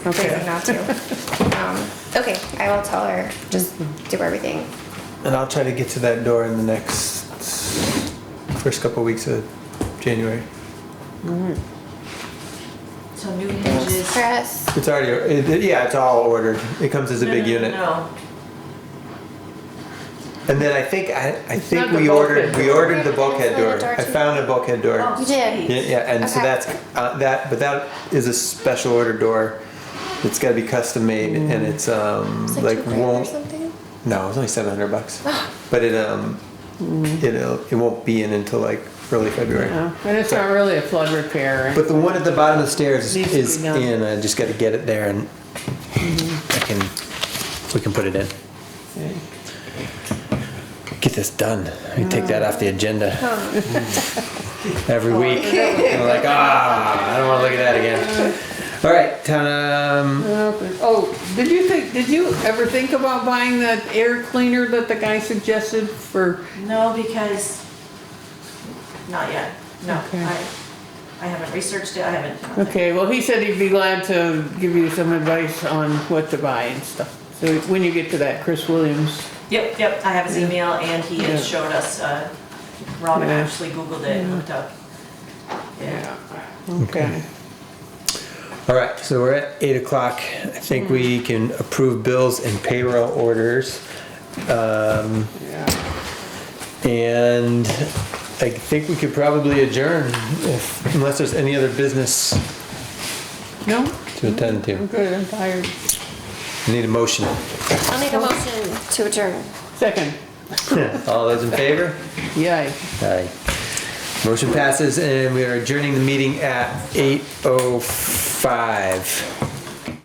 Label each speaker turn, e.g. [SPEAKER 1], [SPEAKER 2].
[SPEAKER 1] reason not to. Um, Okay, I will tell her, just do everything.
[SPEAKER 2] And I'll try to get to that door in the next first couple weeks of January.
[SPEAKER 3] So new
[SPEAKER 1] Thanks,
[SPEAKER 3] hinges.
[SPEAKER 1] Chris.
[SPEAKER 2] It's already, it, yeah, it's all ordered. It comes as a
[SPEAKER 3] No,
[SPEAKER 2] big
[SPEAKER 3] no, no,
[SPEAKER 2] unit.
[SPEAKER 3] No,
[SPEAKER 2] And then I think I, I think
[SPEAKER 4] not the
[SPEAKER 2] we ordered
[SPEAKER 4] bulkhead
[SPEAKER 2] we
[SPEAKER 4] door.
[SPEAKER 2] ordered the bulkhead
[SPEAKER 1] Bulkhead
[SPEAKER 2] door.
[SPEAKER 1] door
[SPEAKER 2] I
[SPEAKER 1] too.
[SPEAKER 2] found a bulkhead door.
[SPEAKER 3] Oh,
[SPEAKER 1] You did.
[SPEAKER 2] Yeah,
[SPEAKER 3] sweet.
[SPEAKER 2] yeah, and so
[SPEAKER 1] Okay.
[SPEAKER 2] that's uh, that, but that is a special order door. It's got to be custom made, and it's um
[SPEAKER 1] It's
[SPEAKER 2] like
[SPEAKER 1] two grand or
[SPEAKER 2] won't
[SPEAKER 1] something?
[SPEAKER 2] no, it's only seven hundred bucks, but it um it'll it won't be in until like early February.
[SPEAKER 4] Yeah, And it's not really a flood repair.
[SPEAKER 2] But the one at the bottom of the stairs
[SPEAKER 4] Needs to be
[SPEAKER 2] is
[SPEAKER 4] done.
[SPEAKER 2] in.
[SPEAKER 4] Mm-hmm.
[SPEAKER 2] I just got to get it there, and I can we can put it in. Get this done. We take that off the agenda
[SPEAKER 4] Oh.
[SPEAKER 2] every week. I'm like, ah, I don't want to look at that again. All right, town. Um,
[SPEAKER 4] Oh, did you think, did you ever think about buying that air cleaner that the guy suggested for?
[SPEAKER 3] No, because, not yet, no.
[SPEAKER 4] Okay.
[SPEAKER 3] I I haven't researched it, I haven't.
[SPEAKER 4] Okay, well, he said he'd be glad to give you some advice on what to buy and stuff. So when you get to that, Chris Williams.
[SPEAKER 3] Yep, yep, I have his email and he has
[SPEAKER 4] Yeah.
[SPEAKER 3] showed us, uh, Robin
[SPEAKER 4] Yeah.
[SPEAKER 3] actually Googled it and looked up.
[SPEAKER 4] Yeah. Okay.
[SPEAKER 2] all right, so we're at eight o'clock. I think we
[SPEAKER 4] Mm-hmm.
[SPEAKER 2] can approve bills and payroll orders. Um,
[SPEAKER 4] Yeah.
[SPEAKER 2] And I think we could probably adjourn if, unless there's any other business
[SPEAKER 4] No,
[SPEAKER 2] to attend
[SPEAKER 4] I'm
[SPEAKER 2] to.
[SPEAKER 4] good, I'm tired.
[SPEAKER 2] Need a motion.
[SPEAKER 1] I'll make a motion to adjourn.
[SPEAKER 4] Second,
[SPEAKER 2] All those in favor?
[SPEAKER 4] yay.
[SPEAKER 2] Aye. Motion passes and we are adjourning the meeting at eight oh five.